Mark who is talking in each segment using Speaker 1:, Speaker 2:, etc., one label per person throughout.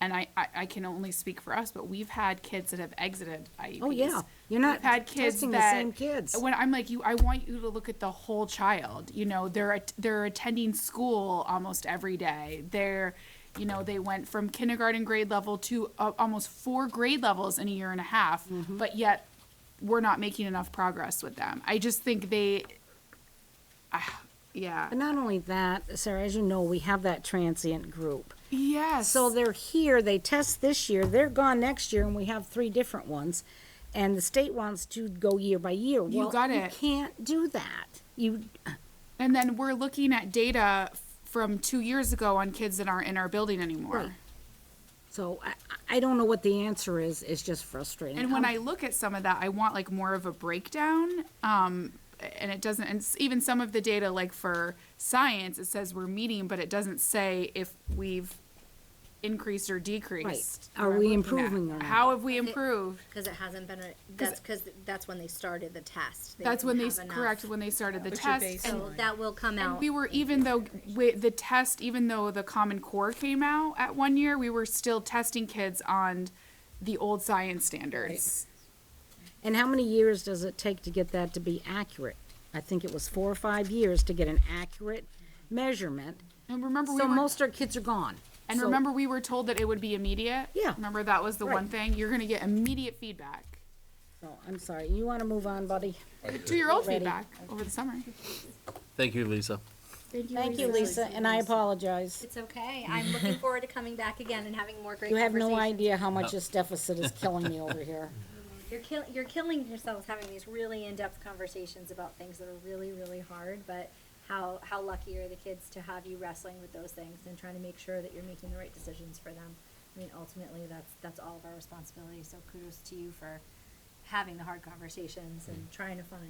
Speaker 1: and I, I, I can only speak for us, but we've had kids that have exited IEPs.
Speaker 2: Oh, yeah. You're not
Speaker 1: We've had kids
Speaker 2: testing the
Speaker 1: that-
Speaker 2: same kids.
Speaker 1: When I'm like, you, I want you to look at the whole child, you know, they're, at- they're attending school almost every day. They're, you know, they went from kindergarten grade level to uh, almost four grade levels in a year and a half,
Speaker 2: Mm-hmm.
Speaker 1: but yet we're not making enough progress with them. I just think they, ah, yeah.
Speaker 2: But not only that, Sarah, as you know, we have that transient group.
Speaker 1: Yes.
Speaker 2: So they're here, they test this year, they're gone next year, and we have three different ones. And the state wants to go year by year.
Speaker 1: You
Speaker 2: Well,
Speaker 1: got it.
Speaker 2: You can't do that. You,
Speaker 1: And then we're looking at data f- from two years ago on kids that aren't in our building
Speaker 2: Right.
Speaker 1: anymore.
Speaker 2: so I, I don't know what the answer is, it's just frustrating.
Speaker 1: And when I look at some of that, I want like more of a breakdown. Um, and it doesn't, and s- even some of the data, like for science, it says we're meeting, but it doesn't say if we've increased or decreased.
Speaker 2: Are
Speaker 1: what
Speaker 2: we
Speaker 1: I'm looking at.
Speaker 2: improving or not?
Speaker 1: How have we improved?
Speaker 3: Because it hasn't been, a- that's because that's when they started the test.
Speaker 1: That's when they,
Speaker 3: didn't
Speaker 1: s-
Speaker 3: have enough.
Speaker 1: correct, when they started the test. and-
Speaker 3: So that will come
Speaker 1: And
Speaker 3: out.
Speaker 1: we were even though wi- the test, even though the Common Core came out at one year, we were still testing kids on the old science standards.
Speaker 2: And how many years does it take to get that to be accurate? I think it was four or five years to get an accurate measurement.
Speaker 1: And remember, we
Speaker 2: So
Speaker 1: were,
Speaker 2: most our kids are gone.
Speaker 1: and
Speaker 2: So-
Speaker 1: remember, we were told that it would be immediate.
Speaker 2: Yeah.
Speaker 1: Remember, that was the one
Speaker 2: Right.
Speaker 1: thing you're going to get immediate feedback.
Speaker 2: Oh, I'm sorry, you want to move on, buddy?
Speaker 1: Do your old
Speaker 2: Ready.
Speaker 1: feedback over the summer.
Speaker 4: Thank you, Lisa.
Speaker 2: Thank you, Lisa, and I apologize.
Speaker 3: It's okay. I'm looking forward to coming back again and having more great
Speaker 2: You have no
Speaker 3: conversations.
Speaker 2: idea how much this deficit is killing me over here.
Speaker 3: You're kill, you're killing yourselves having these really in-depth conversations about things that are really, really hard, but how, how lucky are the kids to have you wrestling with those things and trying to make sure that you're making the right decisions for them. I mean, ultimately, that's, that's all of our responsibility, so kudos to you for having the hard conversations and trying to find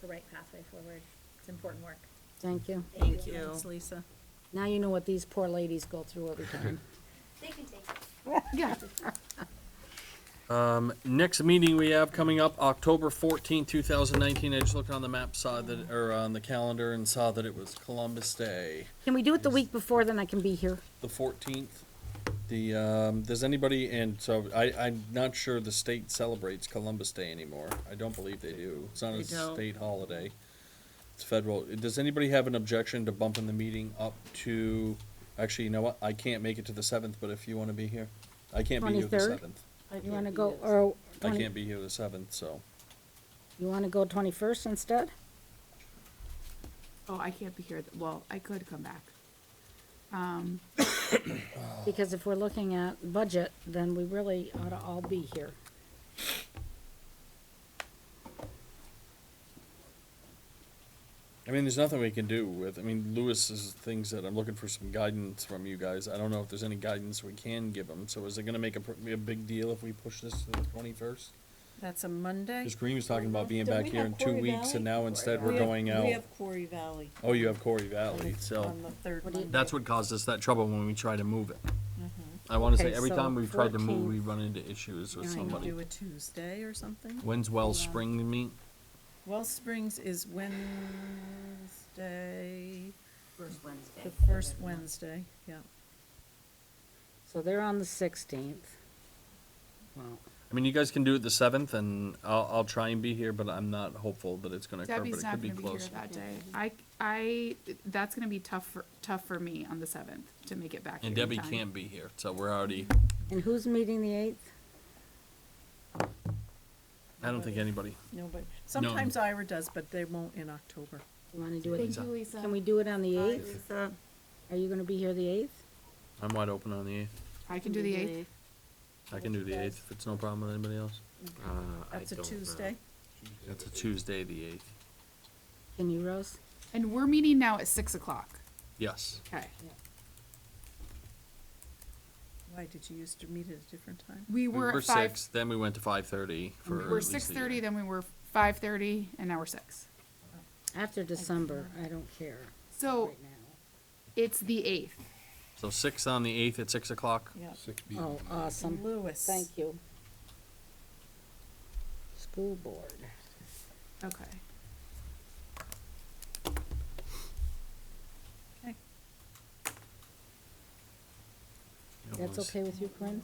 Speaker 3: the right pathway forward. It's important work.
Speaker 2: Thank you.
Speaker 3: Thank you.
Speaker 5: Thanks, Lisa.
Speaker 2: Now you know what these poor ladies go through every time.
Speaker 3: They can take it.
Speaker 1: Yeah.
Speaker 4: Next meeting we have coming up, October fourteenth, two thousand nineteen. I just looked on the map, saw that, or on the calendar and saw that it was Columbus Day,
Speaker 2: Can we do it the week before, then I can be here?
Speaker 4: the fourteenth. The, um, does anybody, and so I, I'm not sure the state celebrates Columbus Day anymore. I don't believe they do. It's not
Speaker 5: They
Speaker 4: a
Speaker 5: don't.
Speaker 4: state holiday. It's federal. Does anybody have an objection to bumping the meeting up to, actually, you know what? I can't make it to the seventh, but if you wanna be here, I can't be here the
Speaker 2: 23rd?
Speaker 4: seventh.
Speaker 2: You want to go, or,
Speaker 4: I
Speaker 2: 20
Speaker 4: can't be here the seventh, so.
Speaker 2: you want to go 21st instead?
Speaker 1: Oh, I can't be here. th- Well, I could come back.
Speaker 2: Because if we're looking at budget, then we really ought to all be here.
Speaker 4: I mean, there's nothing we can do with, I mean, Lewis is things that I'm looking for some guidance from you guys. I don't know if there's any guidance we can give them. So is it gonna make a, pr- be a big deal if we push this to the twenty-first?
Speaker 5: That's a Monday.
Speaker 4: Cause Green was talking about being
Speaker 6: Don't
Speaker 4: back
Speaker 6: we
Speaker 4: here
Speaker 6: have
Speaker 4: in two
Speaker 6: Quarry
Speaker 4: weeks
Speaker 6: Valley?
Speaker 4: and now instead we're
Speaker 5: We have-
Speaker 4: going
Speaker 5: We
Speaker 4: out.
Speaker 5: have Quarry Valley.
Speaker 4: Oh, you have Corey Valley,
Speaker 5: on-
Speaker 4: so.
Speaker 5: On the third
Speaker 2: What do you-
Speaker 5: Monday.
Speaker 4: That's what caused us that trouble when we try to move it. I wanna say,
Speaker 2: Okay,
Speaker 4: every
Speaker 2: so
Speaker 4: time we've tried to move,
Speaker 2: 14th.
Speaker 4: we run into issues with
Speaker 2: Yeah, I know.
Speaker 4: somebody.
Speaker 5: Do a Tuesday or something?
Speaker 4: When's Wells Spring meet?
Speaker 5: Well Springs is Wednesday,
Speaker 3: First Wednesday.
Speaker 5: the first Wednesday, yeah.
Speaker 2: So they're on the 16th. Wow.
Speaker 4: I mean, you guys can do it the seventh and I'll, I'll try and be here, but I'm not hopeful that it's gonna occur, but it
Speaker 1: Debbie's not
Speaker 4: could be
Speaker 1: going to be here
Speaker 4: close.
Speaker 1: that day. I, I, that's going to be tough for, tough for me on the seventh to make it back.
Speaker 4: And
Speaker 1: here in
Speaker 4: Debbie
Speaker 1: time.
Speaker 4: can't be here, so we're already,
Speaker 2: And who's meeting the 8th?
Speaker 4: I don't think anybody.
Speaker 5: No, but sometimes Ira does, but they won't in October.
Speaker 2: You want to do it,
Speaker 1: Thank you, Lisa.
Speaker 2: can we do it on the 8th? Are you going to be here the 8th?
Speaker 4: I'm wide open on the eighth.
Speaker 1: I can do the eighth.
Speaker 4: I can do the eighth if it's no problem with anybody else.
Speaker 5: That's a Tuesday.
Speaker 4: That's a Tuesday, the eighth.
Speaker 2: Can you, Rose?
Speaker 1: And we're meeting now at six o'clock.
Speaker 4: Yes.
Speaker 1: Okay.
Speaker 5: Why, did you used to meet at a different time?
Speaker 1: We
Speaker 4: We
Speaker 1: were
Speaker 4: were
Speaker 1: at five,
Speaker 4: six, then we went to five thirty
Speaker 1: we
Speaker 4: for.
Speaker 1: were
Speaker 4: at least a
Speaker 1: six thirty,
Speaker 4: year.
Speaker 1: then we were five thirty, and now we're six.
Speaker 2: After December, I don't care
Speaker 1: So
Speaker 2: right now.
Speaker 1: it's the eighth.
Speaker 4: So six on the eighth at six o'clock.
Speaker 5: Yeah.
Speaker 2: Oh, awesome.
Speaker 5: Lewis.
Speaker 2: Thank you. School board.
Speaker 1: Okay.
Speaker 5: Okay.
Speaker 4: Yep.
Speaker 2: That's okay with you, Corinne?